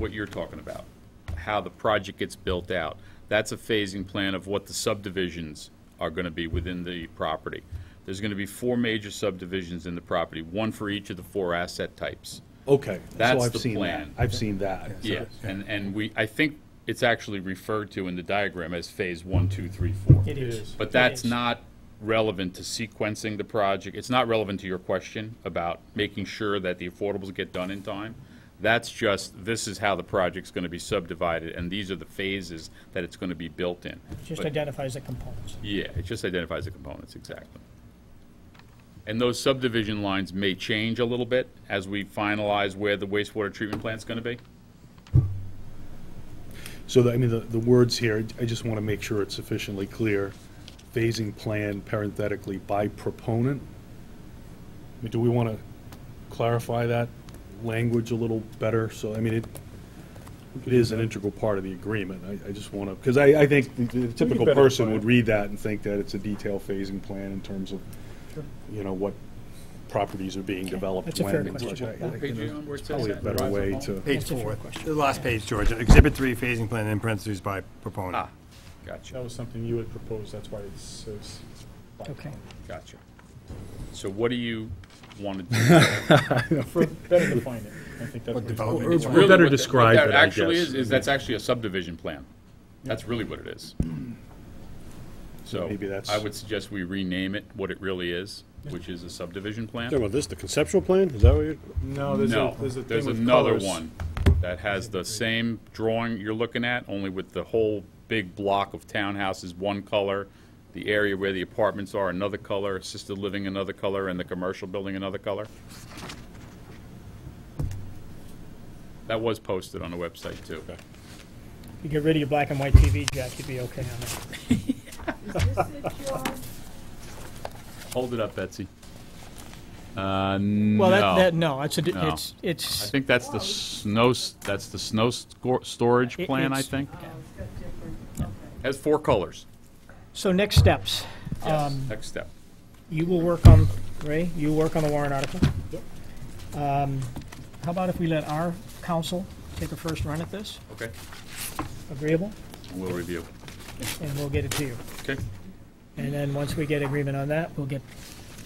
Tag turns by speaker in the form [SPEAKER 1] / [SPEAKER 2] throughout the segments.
[SPEAKER 1] what you're talking about, how the project gets built out. That's a phasing plan of what the subdivisions are going to be within the property. There's going to be four major subdivisions in the property, one for each of the four asset types.
[SPEAKER 2] Okay, so
[SPEAKER 1] That's
[SPEAKER 2] I've
[SPEAKER 1] the
[SPEAKER 2] seen that.
[SPEAKER 1] plan.
[SPEAKER 2] I've seen that.
[SPEAKER 1] Yeah, and, and we, I think it's actually referred to in the diagram as phase one, two, three, four.
[SPEAKER 3] It is.
[SPEAKER 1] But that's
[SPEAKER 3] It is.
[SPEAKER 1] not relevant to sequencing the project. It's not relevant to your question about making sure that the affordables get done in time. That's just, this is how the project's going to be subdivided, and these are the phases that it's going to be built in.
[SPEAKER 3] Just
[SPEAKER 1] But-
[SPEAKER 3] identifies the components.
[SPEAKER 1] Yeah, it just identifies the components, exactly. And those subdivision lines may change a little bit as we finalize where the wastewater treatment plant's going to be.
[SPEAKER 2] So, the- I mean, the, the words here, I just want to make sure it's sufficiently clear. Phasing plan parenthetically by proponent? I mean, Do we want to clarify that language a little better? So, I mean, it, it is an integral part of the agreement. I, I just want to, because I, I think the- the typical
[SPEAKER 4] better
[SPEAKER 2] person
[SPEAKER 4] define
[SPEAKER 2] would
[SPEAKER 4] it.
[SPEAKER 2] read that and think that it's a detailed phasing plan in terms of, you know, what properties are being developed
[SPEAKER 3] That's a fair
[SPEAKER 2] when and such.
[SPEAKER 3] question.
[SPEAKER 2] I- I
[SPEAKER 3] Page
[SPEAKER 2] think
[SPEAKER 1] you
[SPEAKER 2] it's
[SPEAKER 1] on where it says
[SPEAKER 2] Probably a
[SPEAKER 1] that in
[SPEAKER 2] better
[SPEAKER 1] Verizon
[SPEAKER 2] way
[SPEAKER 1] Home?
[SPEAKER 2] to.
[SPEAKER 4] Page
[SPEAKER 3] That's a fair
[SPEAKER 4] four,
[SPEAKER 3] question.
[SPEAKER 4] the last page, George, exhibit three, phasing plan in parentheses by proponent.
[SPEAKER 1] Ah, gotcha.
[SPEAKER 4] That was something you had proposed, that's why it says.
[SPEAKER 3] Okay.
[SPEAKER 1] Gotcha. So what do you want to do?
[SPEAKER 4] For better define it, I think that's.
[SPEAKER 2] Or-
[SPEAKER 4] development.
[SPEAKER 2] or- Better
[SPEAKER 1] Really what that-
[SPEAKER 2] described
[SPEAKER 1] What
[SPEAKER 2] it,
[SPEAKER 1] that
[SPEAKER 2] I
[SPEAKER 1] actually
[SPEAKER 2] guess.
[SPEAKER 1] is, is that's actually a subdivision plan. That's really what it is. So
[SPEAKER 2] Maybe that's-
[SPEAKER 1] I would suggest we rename it what it really is, which is a subdivision
[SPEAKER 5] Talking
[SPEAKER 1] plan.
[SPEAKER 5] about this, the conceptual plan, is that what you're?
[SPEAKER 4] No, there's a,
[SPEAKER 1] No,
[SPEAKER 4] there's a
[SPEAKER 1] there's
[SPEAKER 4] thing with
[SPEAKER 1] another
[SPEAKER 4] colors.
[SPEAKER 1] one that has the same drawing you're looking at, only with the whole big block of townhouses, one color, the area where the apartments are, another color, assisted living, another color, and the commercial building, another color. That was posted on the website, too.
[SPEAKER 3] If you get rid of your black and white TV, Jack, you'd be okay on that.
[SPEAKER 1] Hold it up, Betsy. Uh,
[SPEAKER 3] Well,
[SPEAKER 1] No.
[SPEAKER 3] that, that, no, it's, a di-
[SPEAKER 1] No.
[SPEAKER 3] it's,
[SPEAKER 1] I
[SPEAKER 3] it's,
[SPEAKER 1] think that's the snow, s- that's the snow scor- storage
[SPEAKER 3] It-
[SPEAKER 1] plan, I
[SPEAKER 3] it's-
[SPEAKER 1] think. Has four colors.
[SPEAKER 3] so next steps.
[SPEAKER 1] Yes,
[SPEAKER 3] Um,
[SPEAKER 1] next step.
[SPEAKER 3] You will work on, Ray, you work on the warrant article. Um, How about if we let our council take a first run at this?
[SPEAKER 1] Okay.
[SPEAKER 3] Agreeable?
[SPEAKER 1] We'll review.
[SPEAKER 3] And we'll get it to you.
[SPEAKER 1] Okay.
[SPEAKER 3] And then, once we get agreement on that, we'll get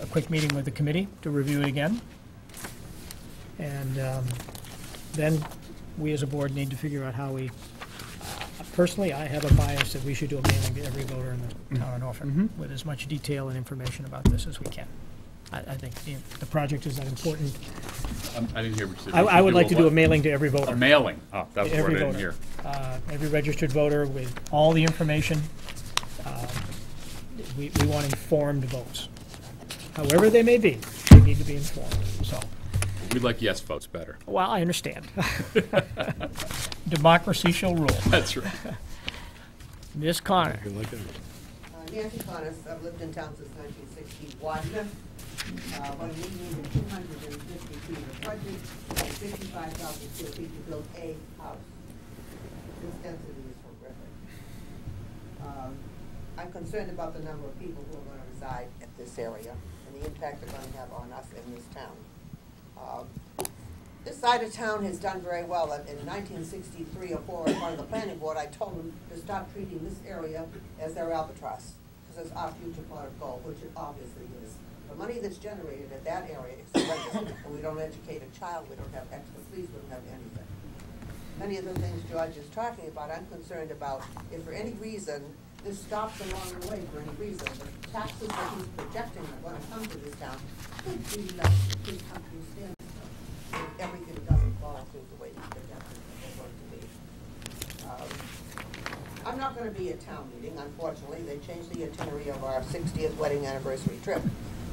[SPEAKER 3] a quick meeting with the committee to review it again. And um, then, we as a board need to figure out how we, personally, I have a bias that we should do a mailing to every voter in the town of Norfolk with as much detail and information about this as we can. I, I think the, the project is that important.
[SPEAKER 1] Um, I didn't hear what you said.
[SPEAKER 3] I,
[SPEAKER 1] We
[SPEAKER 3] I
[SPEAKER 1] should
[SPEAKER 3] would like to do a
[SPEAKER 1] what?
[SPEAKER 3] mailing to every
[SPEAKER 1] A
[SPEAKER 3] voter,
[SPEAKER 1] mailing. Oh, that was the
[SPEAKER 3] Every
[SPEAKER 1] word I didn't
[SPEAKER 3] voter.
[SPEAKER 1] hear.
[SPEAKER 3] uh, every registered voter with all the information. Uh, We, we want informed votes. However they may be, they need to be informed, so.
[SPEAKER 1] We'd like yes votes better.
[SPEAKER 3] Well, I understand. Democracy shall rule.
[SPEAKER 1] That's right.
[SPEAKER 3] Ms. Connor,
[SPEAKER 6] Uh, Nancy Connors, I've lived in town since nineteen sixty-one. Uh, when we needed two hundred and fifty feet of frontage, and sixty-five thousand square feet to build a house. This density is horrific. Um, I'm concerned about the number of people who are gonna reside at this area and the impact they're gonna have on us in this town. Um, this side of town has done very well. In- In nineteen sixty-three or four, in front of the planning board, I told them to stop treating this area as their albatross, because it's our future pot of gold, which it obviously is. The money that's generated at that area is horrendous, and we don't educate a child, we don't have expertise, we don't have anything. Many of the things George is talking about, I'm concerned about if for any reason, this stops along the way for any reason, the taxes that he's projecting are gonna come to this town could be less, could come to stand if everything doesn't fall through the way that it's going to be. Um, I'm not gonna be at town meeting, unfortunately, they changed the itinerary of our sixtieth wedding anniversary trip.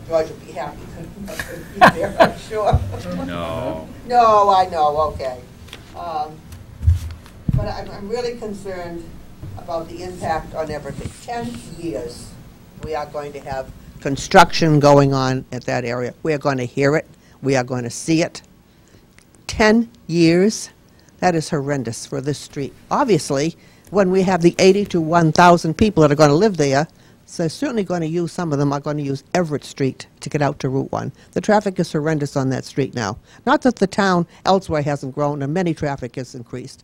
[SPEAKER 6] George will be happy to be there, I'm sure.
[SPEAKER 1] No.
[SPEAKER 6] No, I know, okay. Um, But I'm, I'm really concerned about the impact on everything. Ten years, we are going to have construction going on at that area. We are going to hear it, we are going to see it. Ten years, that is horrendous for this street. Obviously, when we have the eighty to one thousand people that are going to live there, so certainly going to use, some of them are going to use Everett Street to get out to Route 1. The traffic is horrendous on that street now. Not that the town elsewhere hasn't grown, and many traffic has increased,